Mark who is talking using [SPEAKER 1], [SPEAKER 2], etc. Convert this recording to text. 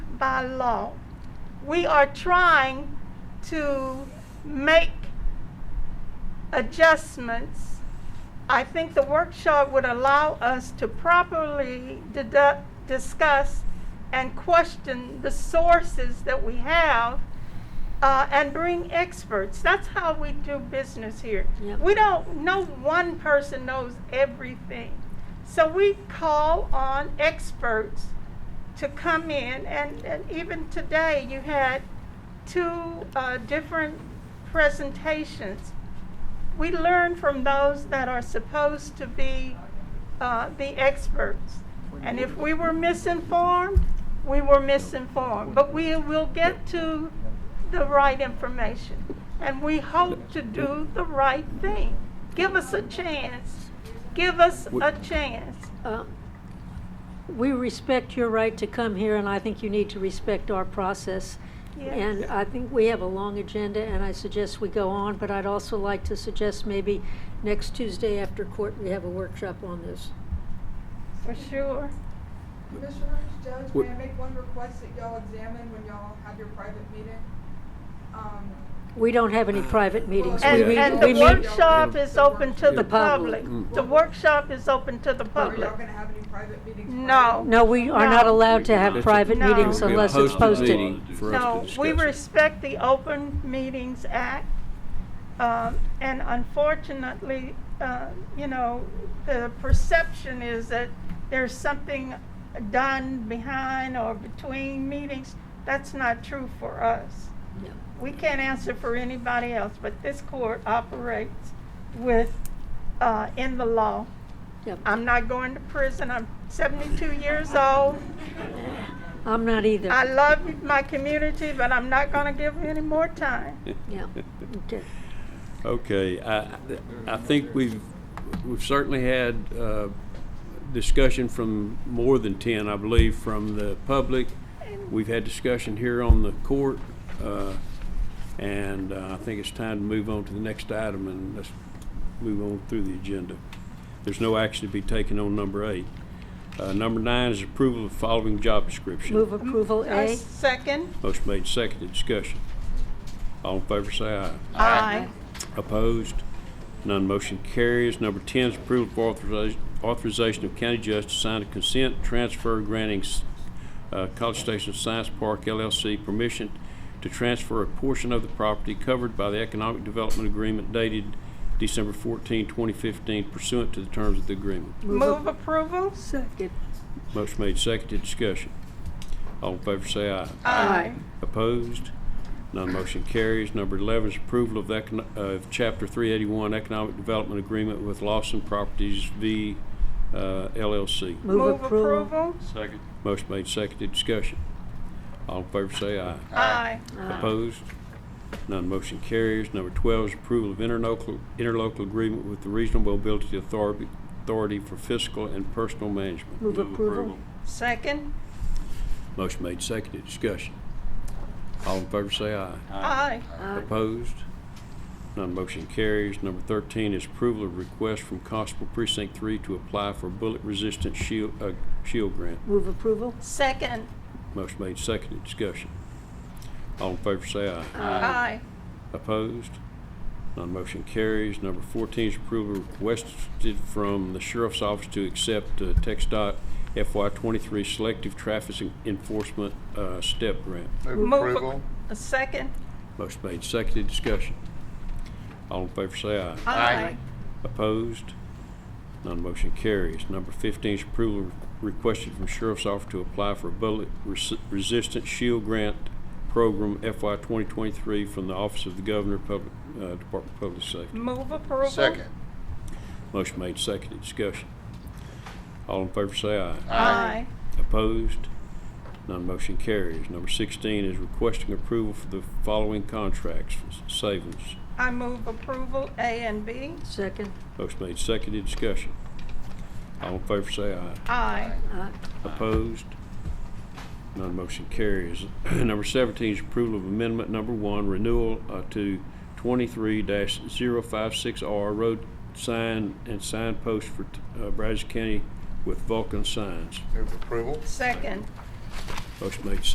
[SPEAKER 1] by law. We are trying to make adjustments. I think the workshop would allow us to properly dedu- discuss and question the sources that we have uh, and bring experts. That's how we do business here.
[SPEAKER 2] Yep.
[SPEAKER 1] We don't, no one person knows everything. So we call on experts to come in, and, and even today you had two uh, different presentations. We learn from those that are supposed to be uh, the experts. And if we were misinformed, we were misinformed. But we will get to the right information. And we hope to do the right thing. Give us a chance. Give us a chance.
[SPEAKER 2] Uh, We respect your right to come here, and I think you need to respect our process. And
[SPEAKER 1] Yes.
[SPEAKER 2] I think we have a long agenda, and I suggest we go on, but I'd also like to suggest maybe next Tuesday after court, we have a workshop on this.
[SPEAKER 1] For sure.
[SPEAKER 3] Commissioners, Judge,
[SPEAKER 4] What-
[SPEAKER 3] may I make one request that y'all examine when y'all have your private meeting? Um,
[SPEAKER 2] We don't have any private meetings.
[SPEAKER 1] And,
[SPEAKER 2] We meet-
[SPEAKER 1] and
[SPEAKER 2] we
[SPEAKER 1] the
[SPEAKER 2] meet-
[SPEAKER 1] workshop is open to the
[SPEAKER 2] The
[SPEAKER 1] public.
[SPEAKER 2] public.
[SPEAKER 4] Mm.
[SPEAKER 1] The workshop is open to the
[SPEAKER 3] Are y'all
[SPEAKER 1] public.
[SPEAKER 3] gonna have any private meetings?
[SPEAKER 1] No.
[SPEAKER 2] No, we are not
[SPEAKER 1] No.
[SPEAKER 2] allowed to have
[SPEAKER 4] It's a-
[SPEAKER 2] private
[SPEAKER 1] No.
[SPEAKER 2] meetings
[SPEAKER 1] It'll be a
[SPEAKER 2] unless it's posted.
[SPEAKER 4] meeting for us to
[SPEAKER 1] No, we
[SPEAKER 4] discuss it.
[SPEAKER 1] respect the Open Meetings Act. um, And unfortunately, uh, you know, the perception is that there's something done behind or between meetings. That's not true for us.
[SPEAKER 2] No.
[SPEAKER 1] We can't answer for anybody else, but this court operates with, uh, in the law.
[SPEAKER 2] Yep.
[SPEAKER 1] I'm not going to prison. I'm 72 years old.
[SPEAKER 2] I'm not either.
[SPEAKER 1] I love my community, but I'm not going to give you any more time.
[SPEAKER 2] Yeah, okay.
[SPEAKER 4] Okay, I, I think we've, we've certainly had, uh, discussion from more than ten, I believe, from the public. We've had discussion here on the court, uh, and uh, I think it's time to move on to the next item and let's move on through the agenda. There's no action to be taken on number eight. Uh, number nine is approval of following job description.
[SPEAKER 2] Move approval
[SPEAKER 1] I
[SPEAKER 2] A.
[SPEAKER 1] Second,
[SPEAKER 4] Motion made, seconded, discussion. All in favor, say aye.
[SPEAKER 1] aye.
[SPEAKER 4] Opposed? None motion carries. Number 10 is approval for authoriza- authorization of county judge to sign a consent transfer granting uh, College Station Science Park LLC permission to transfer a portion of the property covered by the Economic Development Agreement dated December 14, 2015 pursuant to the terms of the agreement.
[SPEAKER 1] Move approval?
[SPEAKER 2] Second.
[SPEAKER 4] Motion made, seconded, discussion. All in favor, say aye.
[SPEAKER 1] Aye.
[SPEAKER 4] Opposed? None motion carries. Number 11 is approval of econo- of Chapter 381 Economic Development Agreement with Lawson Properties v. uh, LLC.
[SPEAKER 1] Move
[SPEAKER 2] Move approval.
[SPEAKER 1] approval?
[SPEAKER 5] Second.
[SPEAKER 4] Motion made, seconded, discussion. All in favor say aye.
[SPEAKER 1] Aye.
[SPEAKER 4] Opposed? None motion carries. Number 12 is approval of interlocal interlocal agreement with the Regional Mobility Authority Authority for Fiscal and Personal Management.
[SPEAKER 2] Move approval.
[SPEAKER 1] Second,
[SPEAKER 4] Motion made, seconded, discussion. All in favor say aye.
[SPEAKER 1] aye.
[SPEAKER 4] Opposed? None motion carries. Number 13 is approval of request from Constable Precinct 3 to apply for bullet-resistant shield, uh, shield grant.
[SPEAKER 2] Move approval.
[SPEAKER 1] Second,
[SPEAKER 4] Motion made, seconded, discussion. All in favor say aye.
[SPEAKER 1] aye.
[SPEAKER 4] Opposed? None motion carries. Number 14 is approval requested from the Sheriff's Office to accept uh, TxDOT FY23 Selective Traffic Enforcement uh, Step Grant.
[SPEAKER 5] Move
[SPEAKER 1] Move
[SPEAKER 5] approval.
[SPEAKER 1] A second,
[SPEAKER 4] Motion made, seconded, discussion. All in favor say aye.
[SPEAKER 1] aye.
[SPEAKER 5] Aye.
[SPEAKER 4] Opposed? None motion carries. Number 15 is approval requested from Sheriff's Office to apply for a bullet-resistant shield grant program FY 2023 from the Office of the Governor, Public, uh, Department of Public Safety.
[SPEAKER 1] Move approval?
[SPEAKER 5] Second.
[SPEAKER 4] Motion made, seconded, discussion. All in favor say aye.
[SPEAKER 1] Aye.
[SPEAKER 4] Opposed? None motion carries. Number 16 is requesting approval for the following contracts, savings.
[SPEAKER 1] I move approval A and B?
[SPEAKER 2] Second.
[SPEAKER 4] Motion made, seconded, discussion. All in favor say aye.
[SPEAKER 1] Aye.
[SPEAKER 2] Aye.
[SPEAKER 4] Opposed? None motion carries. Number 17 is approval of amendment number one, renewal uh, to 23-056R road sign and signpost for t- uh, Brazos County with Vulcan signs.
[SPEAKER 5] Move approval.
[SPEAKER 1] Second.
[SPEAKER 4] Motion made,